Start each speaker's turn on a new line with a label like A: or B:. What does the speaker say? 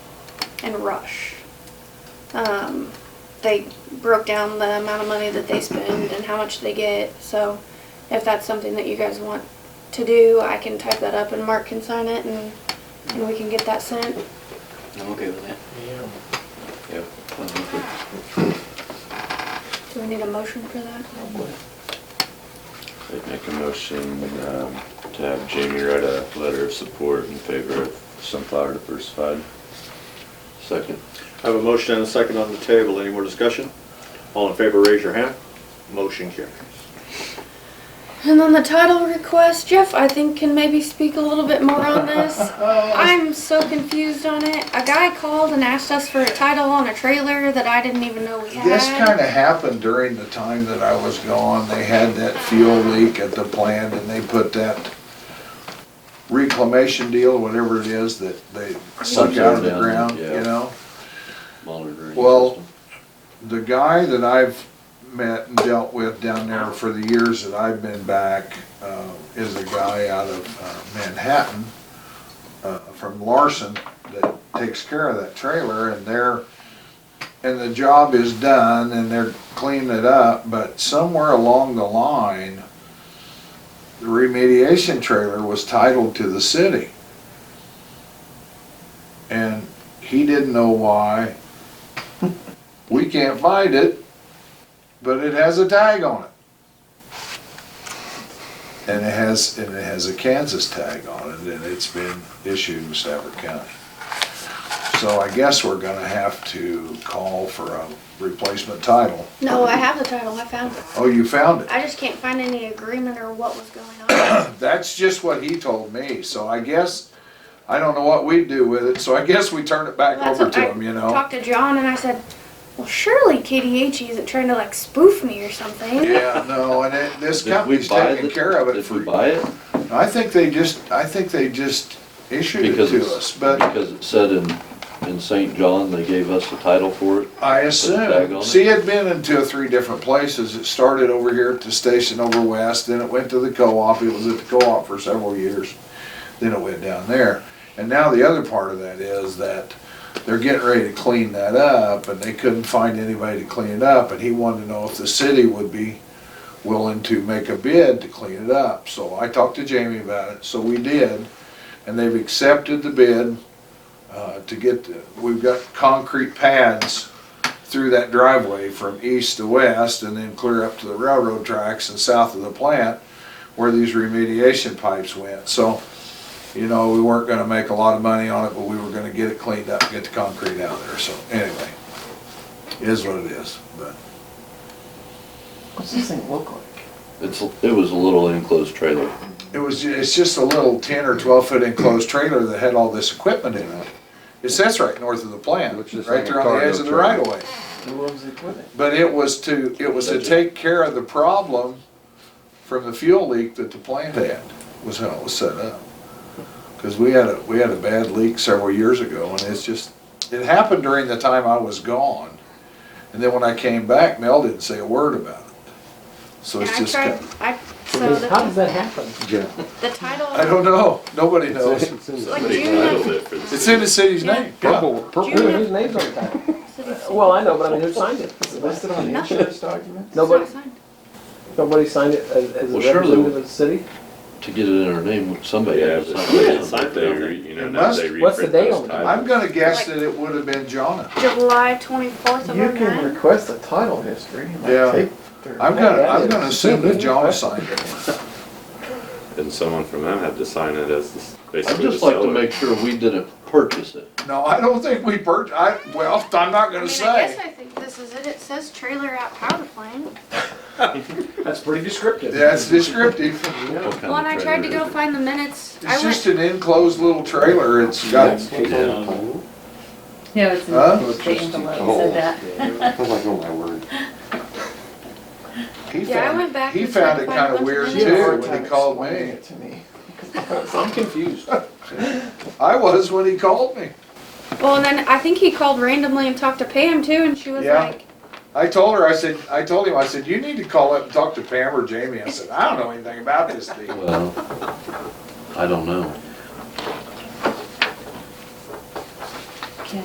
A: and Rush. Um, they broke down the amount of money that they spend and how much they get. So if that's something that you guys want to do, I can type that up and Mark can sign it and, and we can get that sent.
B: I'm okay with that.
C: Yeah.
B: Yeah.
A: Do we need a motion for that?
D: I'd make a motion um, to have Jamie write a letter of support in favor of Sunflower Diversified.
B: Second.
E: I have a motion and a second on the table. Any more discussion? All in favor, raise your hand. Motion carries.
A: And then the title request, Jeff, I think can maybe speak a little bit more on this. I'm so confused on it. A guy called and asked us for a title on a trailer that I didn't even know we had.
F: This kind of happened during the time that I was gone. They had that fuel leak at the plant and they put that reclamation deal, whatever it is, that they suck out of the
B: Down,
F: ground,
B: yeah.
F: you know?
B: Baller drainage
F: Well-
B: system.
F: The guy that I've met and dealt with down there for the years that I've been back uh, is a guy out of uh, Manhattan uh, from Larson that takes care of that trailer and they're, and the job is done and they're cleaning it up, but somewhere along the line, the remediation trailer was titled to the city. And he didn't know why. We can't find it, but it has a tag on it. And it has, and it has a Kansas tag on it, and it's been issued in Stafford County. So I guess we're gonna have to call for a replacement title.
A: No, I have the title. I found it.
F: Oh, you found it.
A: I just can't find any agreement or what was going on.
F: That's just what he told me, so I guess, I don't know what we do with it, so I guess we turn it back
A: That's
F: over
A: what
F: to
A: I
F: him, you know?
A: Talked to John and I said, well, surely KDH isn't trying to like spoof me or something.
F: Yeah, no, and it, this
B: Did we
F: company's
B: buy
F: taking
B: the-
F: care of it
B: Did
F: for
B: we buy it?
F: I think they just, I think they just issued it
B: Because
F: to
B: it's-
F: us, but
B: Because it said in, in St. John, they gave us the title for it.
F: I
B: tag on
F: assume,
B: it.
F: see, it'd been in two or three different places. It started over here at the station over west, then it went to the co-op. It was at the co-op for several years. Then it went down there. And now the other part of that is that they're getting ready to clean that up and they couldn't find anybody to clean it up. And he wanted to know if the city would be willing to make a bid to clean it up. So I talked to Jamie about it, so we did. And they've accepted the bid uh, to get, the- we've got concrete pads through that driveway from east to west and then clear up to the railroad tracks and south of the plant where these remediation pipes went. So, you know, we weren't gonna make a lot of money on it, but we were gonna get it cleaned up, get the concrete out of there. So anyway, it is what it is, but
C: What's this thing look like?
B: It's, it was a little enclosed trailer.
F: it was, ju- it's just a little ten or twelve foot enclosed trailer that had all this equipment in it. It sits right north of the plant,
D: Looks just
F: right
D: like a
F: there on the edge of the
D: cargo
F: right
D: trailer.
F: of way.
C: Who owns the equipment?
F: But it was to, it was to
B: Budget.
F: take care of the problem from the fuel leak that the plant had, was how it was set up. Cause we had a, we had a bad leak several years ago and it's just, it happened during the time I was gone. And then when I came back, Mel didn't say a word about it. So
A: And
F: it's
A: I
F: just,
A: tried,
F: kind of-
A: I, so
C: How does
A: the,
C: that happen?
A: the title.
F: I don't know, nobody knows.
A: Like
D: Somebody
A: June of-
D: titled it for the
F: It's in the city's
A: Yeah.
F: name, yeah.
A: June of-
C: Whose name's on that?
A: city-
C: Well, I know, but I mean, who signed it?
G: listed on the
A: Nothing.
G: insurance document?
A: it's
C: Nobody,
A: not signed.
C: nobody signed it as, as a
B: Well, surely-
C: representative of the city?
B: To get it in our name, somebody
D: Yeah,
B: had
D: but
B: to
D: somebody
B: sign
D: had
B: it.
D: signed
E: They
D: it,
E: re-
D: you know,
F: It
D: now
F: must-
D: they
C: what's the
D: reprint
C: date
D: those
C: on it?
F: I'm
D: titles.
F: gonna guess that it would have been Jonna.
A: July twenty-fourth of
G: You
A: oh
G: can
A: nine.
G: request a title history and
F: Yeah.
G: like take their.
F: I'm gonna, I'm gonna assume that Jonna signed it.
D: And someone from them had to sign it as the-
B: I'd
D: basically the
B: just like to
D: seller.
B: make sure we didn't purchase it.
F: No, I don't think we purch, I, well, I'm not
A: I mean,
F: gonna
A: I
F: say.
A: guess I think this is it. It says trailer out power plane.
C: That's pretty descriptive.
F: Yeah, it's descriptive.
B: What kind
A: Well, and
B: of
A: I tried to
B: trailer
A: go
B: is
A: find the minutes.
F: It's
A: I
F: just
A: went,
F: an enclosed little trailer. It's got,
H: Yeah, it's in
F: Huh?
H: the station below, it said that.
G: I was like, oh my word.
F: he
A: Yeah, I went
F: found,
A: back
F: he
A: and tried
F: found
A: to
F: it
A: find a
F: kind
A: bunch
F: of
A: of
F: weird
A: minutes.
F: too when he called me.
G: it to me.
C: I'm confused.
F: I was when he called me.
A: well, and then I think he called randomly and talked to Pam too, and she was
F: Yeah.
A: like,
F: I told her, I said, I told him, I said, you need to call up and talk to Pam or Jamie. I said, I don't know anything about this
B: it?
F: deal.
B: Well, I don't know.